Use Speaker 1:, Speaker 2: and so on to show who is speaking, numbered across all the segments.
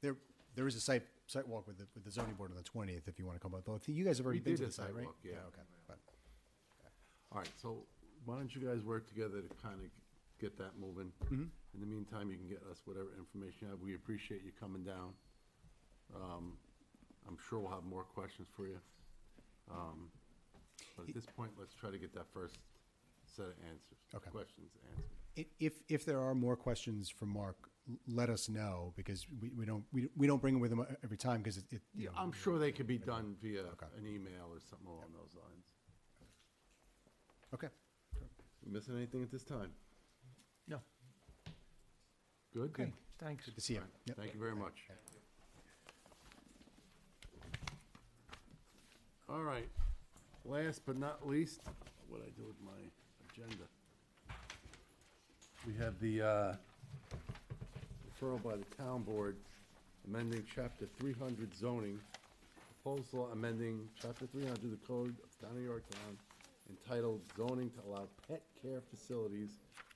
Speaker 1: There, there is a site, site walk with the, with the zoning board on the twentieth, if you want to come up. Though, I think You guys have already
Speaker 2: We
Speaker 1: been
Speaker 2: did
Speaker 1: to
Speaker 2: a
Speaker 1: the site,
Speaker 2: site
Speaker 1: right?
Speaker 2: walk, yeah.
Speaker 1: Okay, but,
Speaker 2: All right, so why don't you guys work together to kind of get that moving?
Speaker 1: Mm-hmm.
Speaker 2: In the meantime, you can get us whatever information you have. We appreciate you coming down. Um, I'm sure we'll have more questions for you. Um, But at this point, let's try to get that first set of answers.
Speaker 1: Okay.
Speaker 2: Questions answered.
Speaker 1: i- if, if there are more questions for Mark, l- let us know, because we, we don't, we, we don't bring them with him every time, because it, it, you
Speaker 2: Yeah,
Speaker 1: know,
Speaker 2: I'm sure they could be done via
Speaker 1: Okay.
Speaker 2: an email or something along those lines.
Speaker 1: okay.
Speaker 2: We Missing anything at this time?
Speaker 3: No.
Speaker 2: Good?
Speaker 3: Okay, thanks.
Speaker 1: Good to see you.
Speaker 2: All right,
Speaker 1: Yep.
Speaker 2: Thank you very much. All right, last but not least, what I do with my agenda. We have the uh, referral by the town board amending chapter three hundred zoning, proposal amending chapter three hundred of the code of town of Yorktown entitled zoning to allow pet care facilities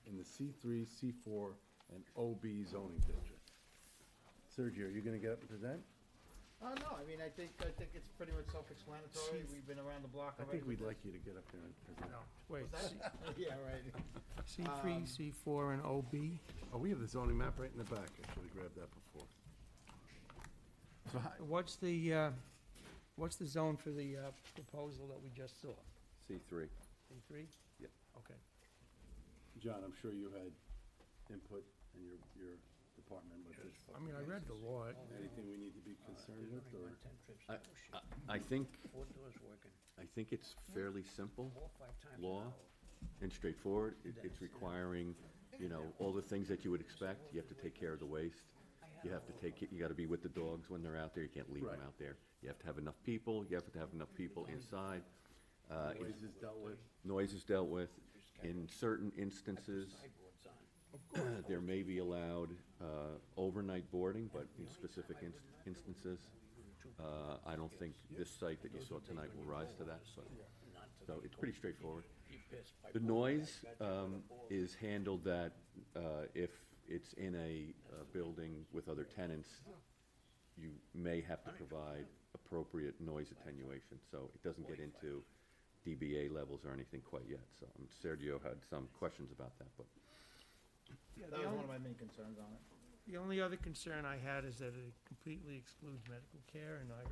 Speaker 2: in the C three, C four, and OB zoning district. Sergio, are you gonna get up and present?
Speaker 4: Uh, no, I mean, I think, I think it's pretty much self-explanatory, we've been around the block
Speaker 2: I
Speaker 4: already.
Speaker 2: think we'd like you to get up there and present.
Speaker 3: Wait,
Speaker 4: Yeah, right.
Speaker 3: C three, C four, and OB?
Speaker 2: Oh, we have the zoning map right in the back. I should've grabbed that before. So hi,
Speaker 3: What's the, uh, what's the zone for the uh, proposal that we just saw?
Speaker 5: C three.
Speaker 3: C three?
Speaker 5: Yep.
Speaker 3: Okay.
Speaker 2: John, I'm sure you had input in your, your department with this.
Speaker 3: I mean, I read the law.
Speaker 2: Anything we need to be concerned with, or?
Speaker 6: Ten trips,
Speaker 5: I, I think,
Speaker 6: four doors working,
Speaker 5: I think it's fairly simple
Speaker 6: four, five times an
Speaker 5: law
Speaker 6: hour.
Speaker 5: and straightforward. It- It's requiring, you know, all the things that you would expect. You have to take care of the waste. You have to take, it- you gotta be with the dogs when they're out there. You can't leave them
Speaker 2: Right.
Speaker 5: out there. You have to have enough people. You have to have enough people inside. Uh,
Speaker 2: Noise is dealt with.
Speaker 5: Noise is dealt with. In certain instances,
Speaker 6: Sideboards on.
Speaker 5: there may be allowed uh, overnight boarding, but in specific inst- instances, uh, I don't think this site that you saw tonight will rise to that, but, so it's pretty straightforward.
Speaker 6: You pissed by
Speaker 5: The
Speaker 6: four,
Speaker 5: noise
Speaker 6: I bet you with a
Speaker 5: um,
Speaker 6: board.
Speaker 5: is handled that uh, if it's in a uh, building with other tenants, you may have to provide appropriate noise attenuation, so it doesn't get into DBA levels or anything quite yet, so um, Sergio had some questions about that, but
Speaker 3: Yeah,
Speaker 4: That
Speaker 3: the
Speaker 4: was one
Speaker 3: only,
Speaker 4: of my main concerns on it.
Speaker 3: the only other concern I had is that it completely excludes medical care, and I,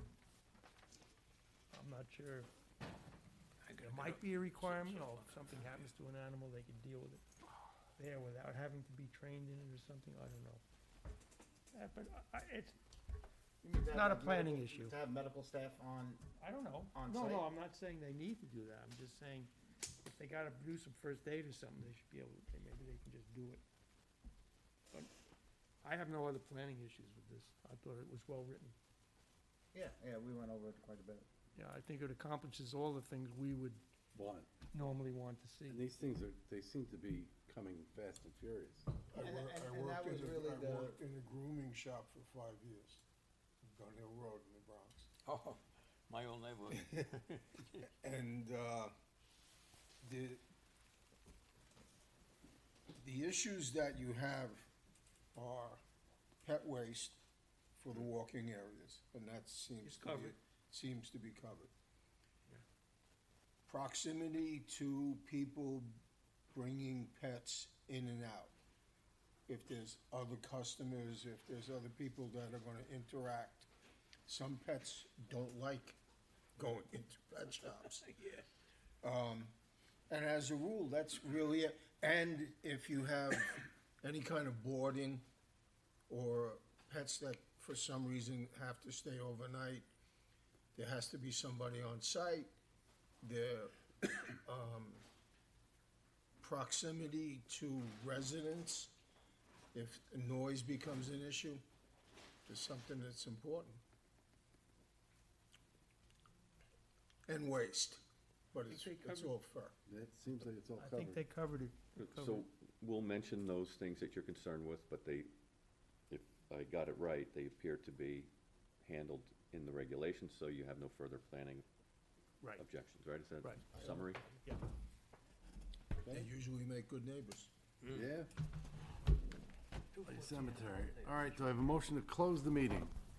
Speaker 3: I'm not sure.
Speaker 6: I gotta
Speaker 3: There
Speaker 6: go.
Speaker 3: might be a requirement, or if something happens to an animal, they could deal with it there without having to be trained in it or something, I don't know. Uh, But I, I- it's,
Speaker 4: You mean to have
Speaker 3: Not a
Speaker 4: medical-
Speaker 3: planning issue.
Speaker 4: To have medical staff on,
Speaker 3: I don't know.
Speaker 4: On
Speaker 3: No,
Speaker 4: site?
Speaker 3: no, I'm not saying they need to do that, I'm just saying, if they gotta do some first aid or something, they should be able, to. maybe they can just do it. But I have no other planning issues with this, I thought it was well-written.
Speaker 4: yeah, yeah, we went over it quite a bit.
Speaker 3: Yeah, I think it accomplishes all the things we would
Speaker 2: One.
Speaker 3: normally want to see.
Speaker 2: And these things are, they seem to be coming fast and furious.
Speaker 7: I
Speaker 4: And-
Speaker 7: wor-
Speaker 4: and-
Speaker 7: I
Speaker 4: and
Speaker 7: worked
Speaker 4: that was
Speaker 7: in a-
Speaker 4: really
Speaker 7: I
Speaker 4: the-
Speaker 7: worked in a grooming shop for five years, on Gun Hill Road in the Bronx.
Speaker 6: Oh, my old neighborhood.
Speaker 7: And, uh, the, the issues that you have are pet waste for the walking areas, and that seems
Speaker 3: It's
Speaker 7: to be,
Speaker 3: covered.
Speaker 7: seems to be covered. Proximity to people bringing pets in and out. If there's other customers, if there's other people that are gonna interact. Some pets don't like going into pet shops. Um, And as a rule, that's really it. And if you have any kind of boarding or pets that for some reason have to stay overnight, there has to be somebody on site. Their um, proximity to residents, if noise becomes an issue, is something that's important. And waste, but it's,
Speaker 3: think they
Speaker 7: it's
Speaker 3: covered-
Speaker 7: all fair.
Speaker 2: That seems like it's all
Speaker 3: I think they
Speaker 2: covered.
Speaker 3: covered it.
Speaker 5: So we'll mention those things that you're concerned with, but they, if I got it right, they appear to be handled in the regulations, so you have no further planning
Speaker 3: Right.
Speaker 5: objections, right? Is that
Speaker 3: Right.
Speaker 5: a summary?
Speaker 7: They usually make good neighbors.
Speaker 2: Yeah. Cemetery. All right, do I have a motion to close the meeting?